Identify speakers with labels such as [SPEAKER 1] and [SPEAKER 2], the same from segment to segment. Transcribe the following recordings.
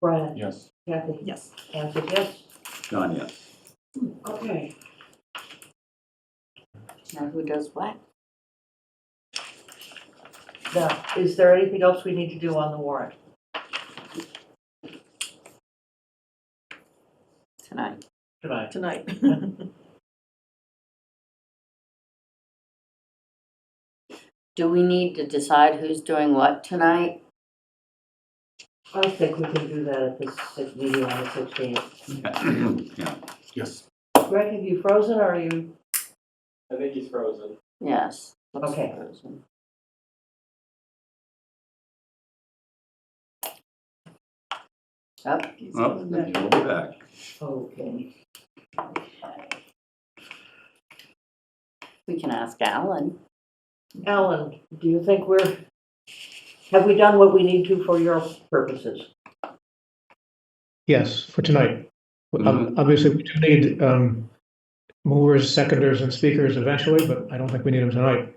[SPEAKER 1] Brian,
[SPEAKER 2] Yes.
[SPEAKER 1] Kathy,
[SPEAKER 3] Yes.
[SPEAKER 1] Anthony, yes?
[SPEAKER 4] John, yes.
[SPEAKER 1] Okay,
[SPEAKER 5] Now who does what?
[SPEAKER 1] now, is there anything else we need to do on the warrant?
[SPEAKER 5] Tonight.
[SPEAKER 1] Tonight.
[SPEAKER 3] Tonight.
[SPEAKER 5] Do we need to decide who's doing what tonight?
[SPEAKER 1] I think we can do that at this six- meeting on the 16th.
[SPEAKER 4] Yeah,
[SPEAKER 2] Yes.
[SPEAKER 1] Greg, have you frozen or are you,
[SPEAKER 6] I think he's frozen.
[SPEAKER 5] Yes. looks
[SPEAKER 1] Okay.
[SPEAKER 5] frozen. Yep.
[SPEAKER 4] well, then you'll be back.
[SPEAKER 1] okay?
[SPEAKER 5] We can ask Alan.
[SPEAKER 1] Alan, do you think we're, have we done what we need to for your purposes?
[SPEAKER 7] Yes, for tonight. Um, Obviously, we do need um, movers, seconders, and speakers eventually, but I don't think we need them tonight.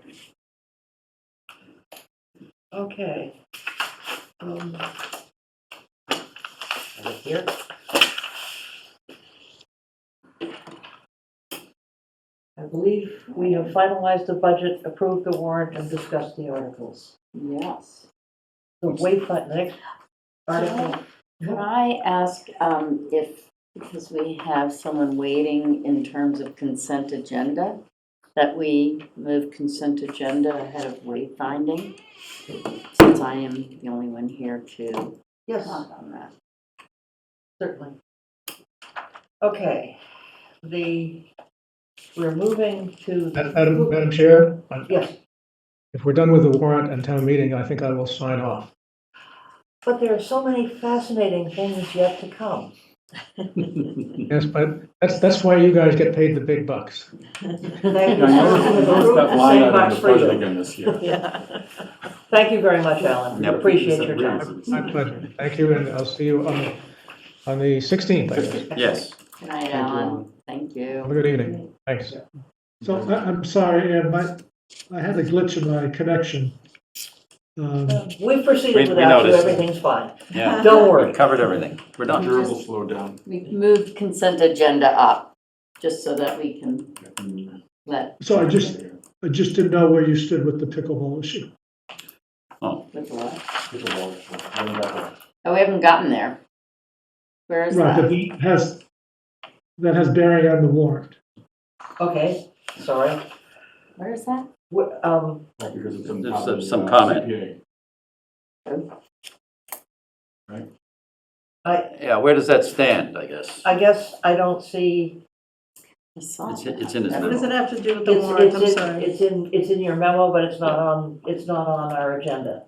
[SPEAKER 1] Okay. Um, Over here. I believe we have finalized the budget, approved the warrant, and discussed the articles.
[SPEAKER 5] Yes.
[SPEAKER 1] The wayfind, the next article,
[SPEAKER 5] Could I ask um, if, because we have someone waiting in terms of consent agenda, that we move consent agenda ahead of wayfinding? Since I am the only one here to
[SPEAKER 1] yes,
[SPEAKER 5] talk on that.
[SPEAKER 1] certainly. Okay, the, we're moving to. the-
[SPEAKER 7] Madam Madam Chair, I-
[SPEAKER 1] Yes,
[SPEAKER 7] if we're done with the warrant and town meeting, I think I will sign off.
[SPEAKER 1] but there are so many fascinating things yet to come.
[SPEAKER 7] Yes, but that's, that's why you guys get paid the big bucks.
[SPEAKER 1] Thank
[SPEAKER 2] Yeah,
[SPEAKER 1] you.
[SPEAKER 2] I noticed, noticed that line
[SPEAKER 1] Same
[SPEAKER 2] item in
[SPEAKER 1] box
[SPEAKER 2] the
[SPEAKER 1] for you.
[SPEAKER 2] budget again this year.
[SPEAKER 3] Yeah.
[SPEAKER 1] Thank you very much, Alan.
[SPEAKER 4] Yep.
[SPEAKER 1] Appreciate your time.
[SPEAKER 7] My
[SPEAKER 2] time.
[SPEAKER 7] pleasure. Thank you, and I'll see you on, the on the 16th, I guess.
[SPEAKER 4] Yes.
[SPEAKER 5] Good night,
[SPEAKER 7] you,
[SPEAKER 5] Alan. Thank
[SPEAKER 7] Have
[SPEAKER 5] you.
[SPEAKER 7] a good evening. Thanks.
[SPEAKER 8] So I, I'm sorry, Ed, my, I had a glitch in my connection. Um,
[SPEAKER 1] We've
[SPEAKER 4] We-
[SPEAKER 1] proceeded
[SPEAKER 4] we
[SPEAKER 1] without you,
[SPEAKER 4] noticed.
[SPEAKER 1] everything's fine.
[SPEAKER 4] Yeah,
[SPEAKER 1] Don't
[SPEAKER 4] we
[SPEAKER 1] worry.
[SPEAKER 4] covered everything. We're done.
[SPEAKER 2] Durable slowdown.
[SPEAKER 5] We've moved consent agenda up, just so that we can let,
[SPEAKER 8] So I just, I just didn't know where you stood with the pickleball issue.
[SPEAKER 5] with the law.
[SPEAKER 2] Pickleball.
[SPEAKER 5] Oh, we haven't gotten there. Where is
[SPEAKER 8] Right, but
[SPEAKER 5] that?
[SPEAKER 8] that has, that has bearing on the warrant.
[SPEAKER 1] Okay, sorry.
[SPEAKER 5] Where is that?
[SPEAKER 1] Wh- Um,
[SPEAKER 2] Right, Because it's some.
[SPEAKER 4] There's
[SPEAKER 2] top
[SPEAKER 4] some-
[SPEAKER 2] of the,
[SPEAKER 4] some
[SPEAKER 2] uh,
[SPEAKER 4] comment.
[SPEAKER 2] CPA.
[SPEAKER 4] Yeah, where does that stand, I guess?
[SPEAKER 1] I guess I don't see,
[SPEAKER 5] I saw
[SPEAKER 4] It's-
[SPEAKER 5] that.
[SPEAKER 4] it's in his
[SPEAKER 5] That
[SPEAKER 3] What
[SPEAKER 4] memo.
[SPEAKER 5] was-
[SPEAKER 3] does it have to do with the
[SPEAKER 1] it's,
[SPEAKER 3] warrant? I'm
[SPEAKER 1] it's, in-
[SPEAKER 3] sorry.
[SPEAKER 1] it's in, it's in your memo, but it's not on, it's not on our agenda.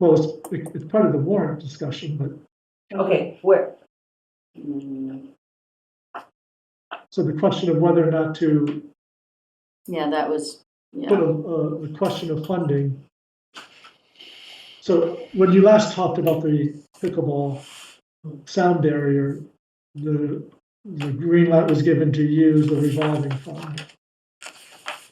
[SPEAKER 8] Well, it's, it- it's part of the warrant discussion, but,
[SPEAKER 1] Okay, where,
[SPEAKER 5] Mm,
[SPEAKER 8] so the question of whether or not to
[SPEAKER 5] Yeah, that was, yeah.
[SPEAKER 8] put a, a, uh, the question of funding. So when you last talked about the pickleball uh, sound barrier, the, the green light was given to use the revolving fund.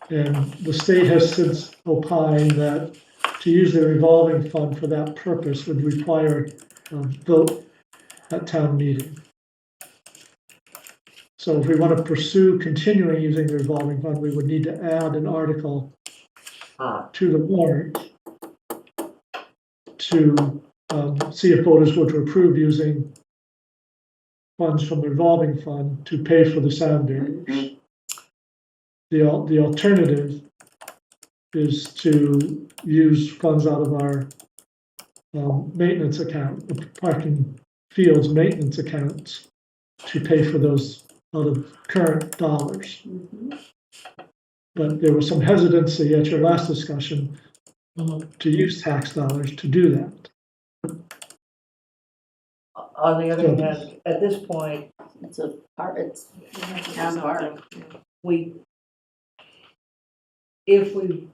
[SPEAKER 8] And the state has since opined that to use the revolving fund for that purpose would require a vote at town meeting. So if we want to pursue continuing using the revolving fund, we would need to add an article
[SPEAKER 1] ah,
[SPEAKER 8] to the warrant to um, see if voters were to approve using funds from the revolving fund to pay for the sound barriers. The, al- the alternative is to use funds out of our um, maintenance account, the parking fields maintenance accounts, to pay for those out of current dollars
[SPEAKER 5] Mhm.
[SPEAKER 8] but there was some hesitancy at your last discussion
[SPEAKER 1] mhm.
[SPEAKER 8] to use tax dollars to do that.
[SPEAKER 1] on the other hand, at this point,
[SPEAKER 5] It's a part, it's town park.
[SPEAKER 3] Something.
[SPEAKER 1] we, if we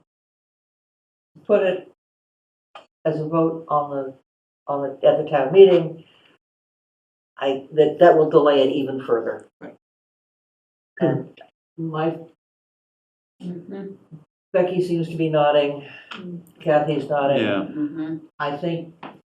[SPEAKER 1] put it as a vote on the, on the, at the town meeting, I, that, that will delay it even further.
[SPEAKER 3] Right.
[SPEAKER 1] And my
[SPEAKER 5] Mhm.
[SPEAKER 1] Becky seems to be nodding, Kathy's nodding.
[SPEAKER 4] yeah.
[SPEAKER 5] Mhm.
[SPEAKER 1] I think